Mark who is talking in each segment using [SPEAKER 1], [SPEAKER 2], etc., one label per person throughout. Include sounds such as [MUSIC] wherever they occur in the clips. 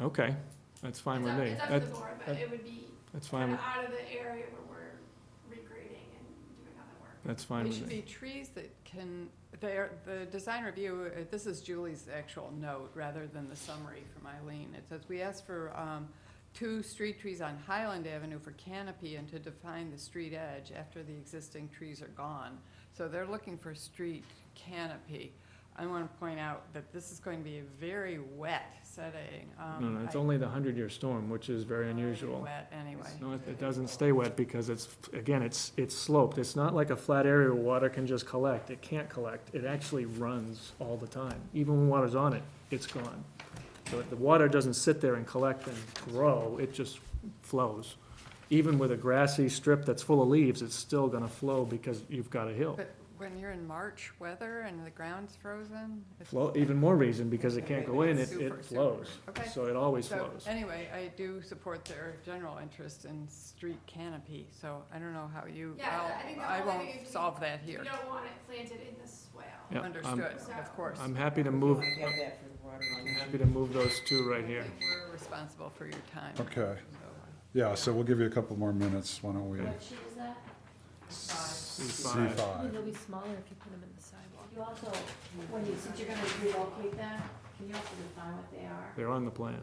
[SPEAKER 1] Okay, that's fine
[SPEAKER 2] It's
[SPEAKER 1] with
[SPEAKER 2] up-
[SPEAKER 1] me.
[SPEAKER 2] It's up to
[SPEAKER 1] That-
[SPEAKER 2] the board, but
[SPEAKER 1] that-
[SPEAKER 2] it would be
[SPEAKER 1] That's fine,
[SPEAKER 2] kind of
[SPEAKER 1] with-
[SPEAKER 2] out of the area where we're regrading and doing other work.
[SPEAKER 1] that's fine
[SPEAKER 3] They
[SPEAKER 1] with
[SPEAKER 3] should be
[SPEAKER 1] me.
[SPEAKER 3] trees that can, they're, the design review, uh, this is Julie's actual note rather than the summary from Eileen. It says, we asked for, um, two street trees on Highland Avenue for canopy and to define the street edge after the existing trees are gone. So they're looking for street canopy. I wanna point out that this is going to be a very wet setting. um,
[SPEAKER 1] No, no, it's only the hundred-year storm, which is very unusual.
[SPEAKER 3] Wet anyway.
[SPEAKER 1] No, it, it doesn't stay wet because it's, again, it's, it's sloped. It's not like a flat area where water can just collect. It can't collect. It actually runs all the time. Even when water's on it, it's gone. So if the water doesn't sit there and collect and grow, it just flows. Even with a grassy strip that's full of leaves, it's still gonna flow because you've got a hill.
[SPEAKER 3] But when you're in March weather and the ground's frozen, it's
[SPEAKER 1] Well, even more reason, because it can't go in, it,
[SPEAKER 3] Super, super.
[SPEAKER 1] it flows.
[SPEAKER 3] Okay.
[SPEAKER 1] So it always
[SPEAKER 3] So,
[SPEAKER 1] flows.
[SPEAKER 3] anyway, I do support their general interest in street canopy, so I don't know how you,
[SPEAKER 2] Yeah, I
[SPEAKER 3] I'll-
[SPEAKER 2] think the
[SPEAKER 3] I
[SPEAKER 2] whole thing
[SPEAKER 3] won't
[SPEAKER 2] is
[SPEAKER 3] solve that
[SPEAKER 2] You
[SPEAKER 3] here.
[SPEAKER 2] don't want it planted in the swale.
[SPEAKER 1] Yeah, I'm-
[SPEAKER 3] Understood, of course.
[SPEAKER 1] I'm happy to move,
[SPEAKER 4] I get that for the water
[SPEAKER 1] I'm
[SPEAKER 4] line.
[SPEAKER 1] happy to move those two right here.
[SPEAKER 3] I think We're responsible for your time.
[SPEAKER 5] Okay,
[SPEAKER 3] so, uh,
[SPEAKER 5] yeah, so we'll give you a couple more minutes, why don't we?
[SPEAKER 6] What sheet is that?
[SPEAKER 1] C5.
[SPEAKER 5] C
[SPEAKER 6] Ooh,
[SPEAKER 5] five.
[SPEAKER 6] They'll be smaller if you put them in the sidewalk.
[SPEAKER 4] You also,
[SPEAKER 6] When you, since you're gonna relocate them, can you also define what they are?
[SPEAKER 1] They're on the plan.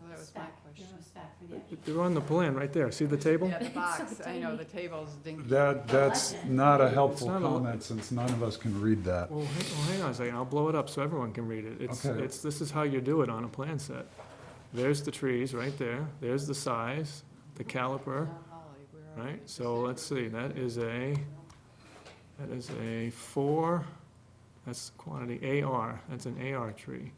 [SPEAKER 3] well, That was my
[SPEAKER 6] Spec, you
[SPEAKER 3] question.
[SPEAKER 6] know, spec for the actual.
[SPEAKER 1] They're on the plan, right there. See the table?
[SPEAKER 3] Yeah,
[SPEAKER 1] [LAUGHS]
[SPEAKER 3] the box, I know,
[SPEAKER 6] tiny.
[SPEAKER 3] the table's dinky.
[SPEAKER 5] That, that's not a helpful
[SPEAKER 1] It's not a-
[SPEAKER 5] comment, since none of us can read that.
[SPEAKER 1] Well, hang, well, hang on a second. I'll blow it up so everyone can read it. It's,
[SPEAKER 5] Okay.
[SPEAKER 1] it's, this is how you do it on a plan set. There's the trees right there. There's the size, the caliper,
[SPEAKER 3] Now, Holly, where are
[SPEAKER 1] right?
[SPEAKER 3] we?
[SPEAKER 1] So let's see, that is a, that is a four, that's quantity AR, that's an AR tree.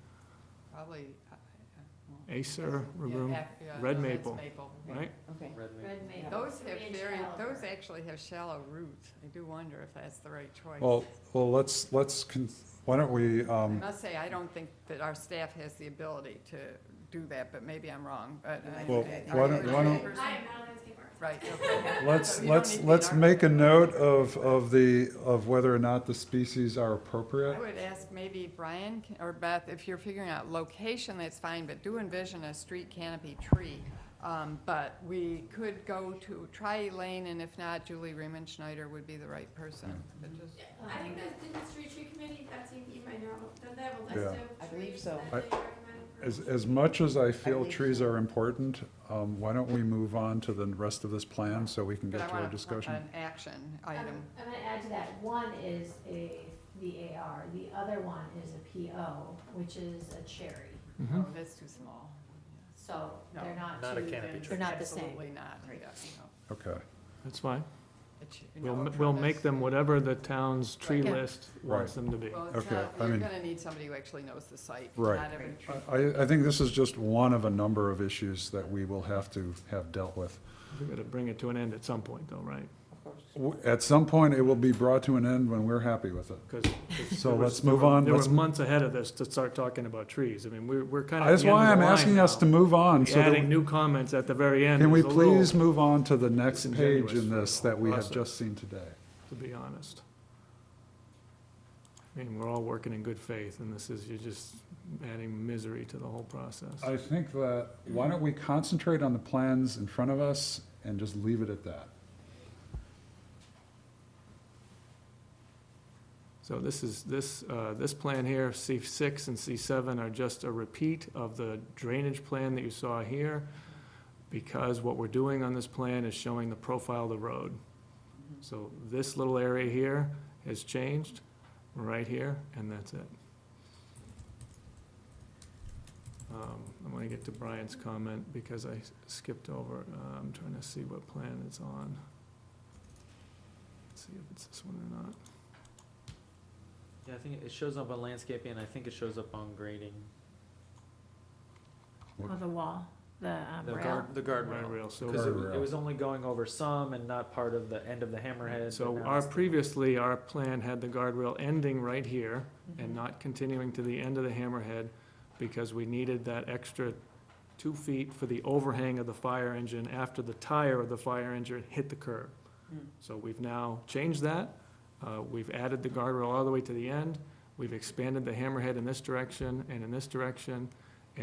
[SPEAKER 3] Probably. uh, uh, well,
[SPEAKER 1] Acer,
[SPEAKER 3] yeah,
[SPEAKER 1] rubrum,
[SPEAKER 3] ac- yeah,
[SPEAKER 1] red
[SPEAKER 3] no, that's
[SPEAKER 1] maple. right?
[SPEAKER 4] Okay.
[SPEAKER 6] Red maple.
[SPEAKER 3] Those have
[SPEAKER 6] Three-inch
[SPEAKER 3] very, those
[SPEAKER 6] caliper.
[SPEAKER 3] actually have shallow roots. I do wonder if that's the right choice.
[SPEAKER 5] Well, well, let's, let's, con- why don't we,
[SPEAKER 3] I
[SPEAKER 5] um,
[SPEAKER 3] must say, I don't think that our staff has the ability to do that, but maybe I'm wrong, but. I-
[SPEAKER 5] Well,
[SPEAKER 3] I-
[SPEAKER 5] why don't- why don't-
[SPEAKER 2] I am not a landscaper.
[SPEAKER 3] Right, okay.
[SPEAKER 5] let's,
[SPEAKER 3] So you don't need
[SPEAKER 5] let's,
[SPEAKER 3] to be
[SPEAKER 5] let's
[SPEAKER 3] an
[SPEAKER 5] make a note
[SPEAKER 3] architect.
[SPEAKER 5] of, of the, of whether or not the species are appropriate.
[SPEAKER 3] I would ask maybe Brian can- or Beth, if you're figuring out location, that's fine, but do envision a street canopy tree. Um, but we could go to, try Elaine, and if not, Julie Raymond Schneider would be the right person. But just-
[SPEAKER 2] Yeah, I think that's, did the street tree committee, Betsy, you might know, don't they have a
[SPEAKER 5] Yeah.
[SPEAKER 2] list
[SPEAKER 4] I
[SPEAKER 2] of
[SPEAKER 4] believe
[SPEAKER 2] trees
[SPEAKER 4] so.
[SPEAKER 2] that
[SPEAKER 5] I-
[SPEAKER 2] they recommend for?
[SPEAKER 5] As, as much as I feel
[SPEAKER 4] believe
[SPEAKER 5] trees are important, um, why don't we move on to the rest of this plan so we can
[SPEAKER 3] But
[SPEAKER 5] get
[SPEAKER 3] I
[SPEAKER 5] to our
[SPEAKER 3] want
[SPEAKER 5] discussion?
[SPEAKER 3] An action item.
[SPEAKER 6] Um, I'm gonna add to that, one is a, the AR, the other one is a PO, which is a cherry,
[SPEAKER 3] Oh,
[SPEAKER 1] Mhm.
[SPEAKER 3] that's too small.
[SPEAKER 6] so
[SPEAKER 3] No.
[SPEAKER 6] they're not
[SPEAKER 7] Not a
[SPEAKER 6] two-
[SPEAKER 7] canopy
[SPEAKER 6] They're not the same.
[SPEAKER 3] Absolutely not, yeah,
[SPEAKER 6] Right.
[SPEAKER 3] no.
[SPEAKER 5] Okay,
[SPEAKER 1] That's fine.
[SPEAKER 3] It's, you
[SPEAKER 1] We'll,
[SPEAKER 3] know,
[SPEAKER 1] m- we'll
[SPEAKER 3] premise.
[SPEAKER 1] make them whatever the town's tree
[SPEAKER 3] Yeah.
[SPEAKER 1] list wants them to be.
[SPEAKER 3] Well, it's
[SPEAKER 5] Okay,
[SPEAKER 3] not,
[SPEAKER 5] I
[SPEAKER 3] you're
[SPEAKER 5] mean-
[SPEAKER 3] gonna need somebody who actually knows the site.
[SPEAKER 5] Right.
[SPEAKER 3] Not every tree.
[SPEAKER 5] I, I think this is just one of a number of issues that we will have to have dealt with.
[SPEAKER 1] We've got to bring it to an end at some point though, right?
[SPEAKER 4] Of course.
[SPEAKER 5] W- At some point, it will be brought to an end when we're happy with it.
[SPEAKER 1] Because.
[SPEAKER 5] So let's move on.
[SPEAKER 1] There were
[SPEAKER 5] Let's,
[SPEAKER 1] months ahead of this to start talking about trees. I mean, we're, we're kind of.
[SPEAKER 5] that's why I'm asking us to move on. So
[SPEAKER 1] Adding
[SPEAKER 5] that-
[SPEAKER 1] new comments at the very end.
[SPEAKER 5] can we
[SPEAKER 1] is a little-
[SPEAKER 5] please move on to the next page
[SPEAKER 1] disingenuous
[SPEAKER 5] in
[SPEAKER 1] for the
[SPEAKER 5] this
[SPEAKER 1] whole
[SPEAKER 5] that we have
[SPEAKER 1] process.
[SPEAKER 5] just seen today?
[SPEAKER 1] To be honest. I mean, we're all working in good faith and this is, you're just adding misery to the whole process.
[SPEAKER 5] I think that, why don't we concentrate on the plans in front of us and just leave it at that?
[SPEAKER 1] So this is, this, uh, this plan here, C6 and C7 are just a repeat of the drainage plan that you saw here, because what we're doing on this plan is showing the profile of the road. So this little area here has changed, right here, and that's it. Um, I'm gonna get to Brian's comment, because I s- skipped over, Uh, I'm trying to see what plan it's on. See if it's this one or not.
[SPEAKER 7] Yeah, I think it shows up on landscaping, and I think it shows up on grading.
[SPEAKER 6] Or Oh, the wall, the um,
[SPEAKER 7] The
[SPEAKER 6] rail.
[SPEAKER 7] guard, the guardrail.
[SPEAKER 1] Guardrail, so-
[SPEAKER 7] Because it,
[SPEAKER 5] Guardrail.
[SPEAKER 7] it was only going over some and not part of the end of the hammerhead. but
[SPEAKER 1] So
[SPEAKER 7] now
[SPEAKER 1] our,
[SPEAKER 7] it's-
[SPEAKER 1] previously, our plan had the guardrail ending right here and not continuing to the end of the hammerhead because we needed that extra two feet for the overhang of the fire engine after the tire of the fire engine hit the curb.
[SPEAKER 4] Hmm.
[SPEAKER 1] So we've now changed that. Uh, We've added the guardrail all the way to the end. We've expanded the hammerhead in this direction and in this direction.